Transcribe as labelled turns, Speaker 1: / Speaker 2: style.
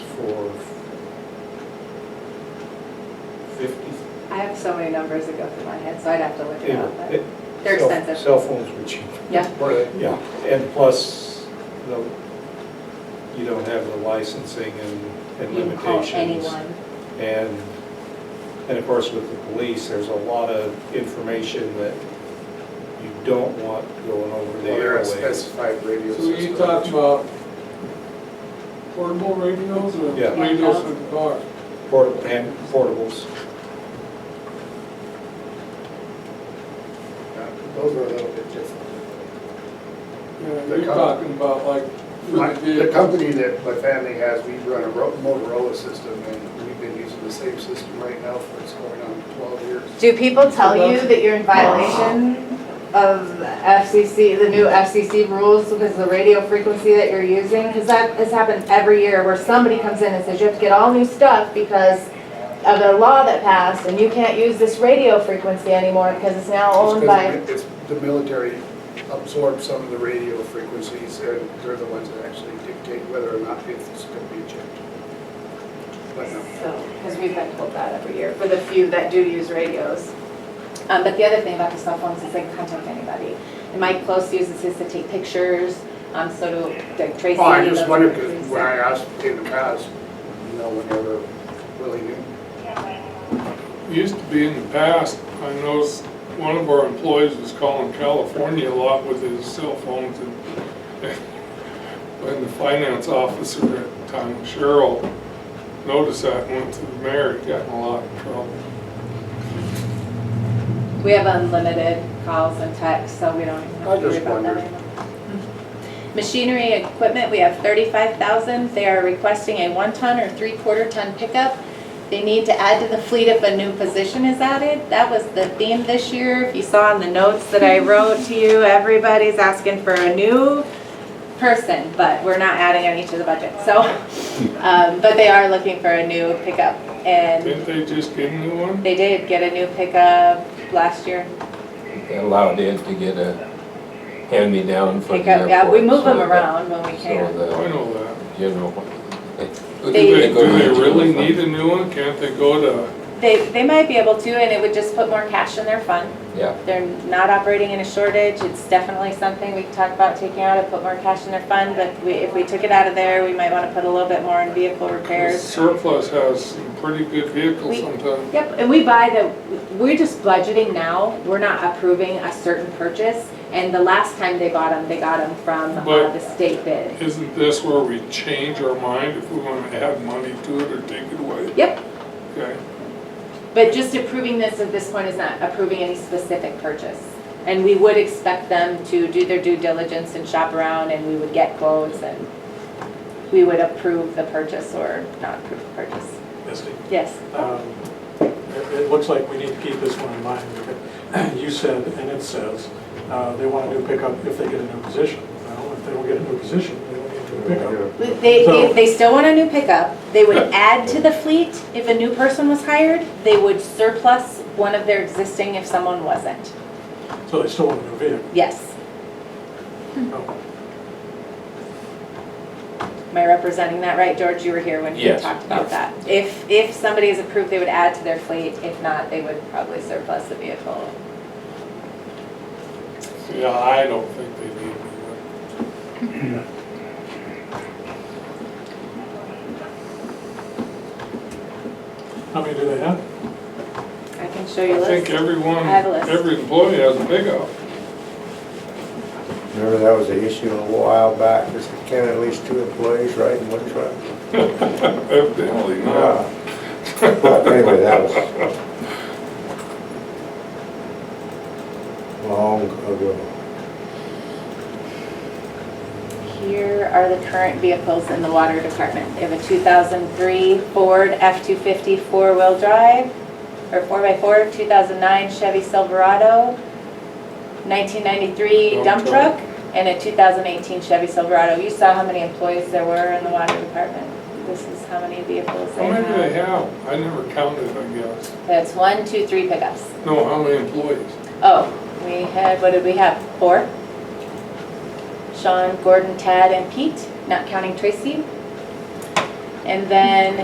Speaker 1: have so many numbers that go through my head, so I'd have to look it up.
Speaker 2: Yeah,
Speaker 1: but- They're
Speaker 2: cell-
Speaker 1: expensive.
Speaker 2: Cell phones were cheap.
Speaker 1: Yeah.
Speaker 2: Were they? Yeah, and plus, the- you don't have the licensing and- and
Speaker 1: You can call
Speaker 2: limitations.
Speaker 1: anyone.
Speaker 2: And, and of course, with the police, there's a lot of information that you don't want going over the
Speaker 3: They're a
Speaker 2: airwaves.
Speaker 3: specified radio
Speaker 4: So you
Speaker 3: system.
Speaker 4: talk about portable radios or
Speaker 2: Yeah.
Speaker 4: radios for the car?
Speaker 2: Portable, and portables.
Speaker 3: Yeah, Those are a little bit different.
Speaker 4: Yeah,
Speaker 3: The
Speaker 4: You're
Speaker 3: com-
Speaker 4: talking about like
Speaker 3: My-
Speaker 4: for the
Speaker 3: The
Speaker 4: vehicle.
Speaker 3: company that my family has, we run a Ro- Motorola system, and we've been using the same system right now for, it's going on 12 years.
Speaker 1: Do people tell you that you're in violation of FCC, the new FCC rules because of the radio frequency that you're using? Because that has happened every year where somebody comes in and says, you have to get all new stuff because of a law that passed and you can't use this radio frequency anymore because it's now owned by.
Speaker 3: It's 'cause it's- The military absorbs some of the radio frequencies, and they're the ones that actually dictate whether or not it's going to be checked. But uh, no.
Speaker 1: Because we've been told that every year for the few that do use radios. Um, but the other thing about the cell phones is they can contact anybody. And Mike Close uses his to take pictures, um, so do like Tracy.
Speaker 3: Well, Oh, I just
Speaker 1: those
Speaker 3: wonder,
Speaker 1: are
Speaker 3: because
Speaker 1: pretty
Speaker 3: when I
Speaker 1: sad.
Speaker 3: asked in the past, no one ever really knew.
Speaker 4: Used to be in the past, I noticed one of our employees was calling California a lot with his cell phones and when the finance officer at the time, Cheryl, noticed that, and went to the mayor, and got in a lot of trouble.
Speaker 1: We have unlimited calls and texts, so we don't even
Speaker 3: I
Speaker 1: have to worry
Speaker 3: just
Speaker 1: about that
Speaker 3: wondered.
Speaker 1: anymore. Machinery and equipment, we have thirty-five thousand. They are requesting a one-ton or three-quarter ton pickup. They need to add to the fleet if a new position is added. That was the theme this year. If you saw in the notes that I wrote to you, everybody's asking for a new person, but we're not adding any to the budget, so. Um, but they are looking for a new pickup and
Speaker 4: Didn't they just get a new one?
Speaker 1: they did get a new pickup last year.
Speaker 5: allowed Ed to get a hand-me-down from
Speaker 1: pick
Speaker 5: the
Speaker 1: up,
Speaker 5: airport.
Speaker 1: yeah, we move
Speaker 5: so
Speaker 1: them
Speaker 5: that-
Speaker 1: around when we can.
Speaker 4: I
Speaker 5: So
Speaker 4: know that.
Speaker 5: the general.
Speaker 1: They-
Speaker 4: Do they, do they really need a new one? Can't they go to,
Speaker 1: They, they might be able to, and it would just put more cash in their fund.
Speaker 5: Yeah,
Speaker 1: They're not operating in a shortage, it's definitely something we could talk about taking out and put more cash in their fund, but we, if we took it out of there, we might wanna put a little bit more in vehicle repairs.
Speaker 4: surplus has some pretty good vehicles
Speaker 1: We-
Speaker 4: sometimes.
Speaker 1: Yep, and we buy the, we're just budgeting now, we're not approving a certain purchase, and the last time they bought them, they got them from uh,
Speaker 4: But-
Speaker 1: the state bid.
Speaker 4: Isn't this where we change our mind if we want to add money to it or take it away?
Speaker 1: Yep,
Speaker 4: Okay,
Speaker 1: But just approving this at this point is not approving any specific purchase. And we would expect them to do their due diligence and shop around, and we would get quotes, and we would approve the purchase or not approve the purchase.
Speaker 6: Misty,
Speaker 1: Yes.
Speaker 6: um, it it looks like we need to keep this one in mind. because You said, and it says, uh, they want a new pickup if they get a new position. Well, if they don't get a new position, they don't get a new pickup.
Speaker 1: They, they, they still want a new pickup. They would add to the fleet if a new person was hired. They would surplus one of their existing if someone wasn't.
Speaker 6: So they still want a new vehicle.
Speaker 1: Yes.
Speaker 6: No.
Speaker 1: Am I representing that right, George? You were here when we
Speaker 5: Yes,
Speaker 1: talked about that. If, if somebody is approved, they would add to their fleet. If not, they would probably surplus the vehicle.
Speaker 4: yeah, I don't think they need a new one.
Speaker 6: How many do they have?
Speaker 1: I can show you a
Speaker 4: I think
Speaker 1: list.
Speaker 4: everyone,
Speaker 1: I have a list.
Speaker 4: every employee has a pickup.
Speaker 7: Remember that was an issue a while back, just can at least two employees ride in one truck?
Speaker 4: Evidently not.
Speaker 7: But anyway, that was long ago.
Speaker 4: uh,
Speaker 1: Here are the current vehicles in the water department. They have a 2003 Ford F-250 four-wheel drive, or 4x4, 2009 Chevy Silverado, 1993 dump
Speaker 4: Dump
Speaker 1: truck,
Speaker 4: truck.
Speaker 1: and a 2018 Chevy Silverado. You saw how many employees there were in the water department. This is how many vehicles they
Speaker 4: How many do they
Speaker 1: have.
Speaker 4: have? I never counted, I guess.
Speaker 1: That's one, two, three pickups.
Speaker 4: No, how many employees?
Speaker 1: Oh, we had, what did we have, four? Sean, Gordon, Tad, and Pete, not counting Tracy. And then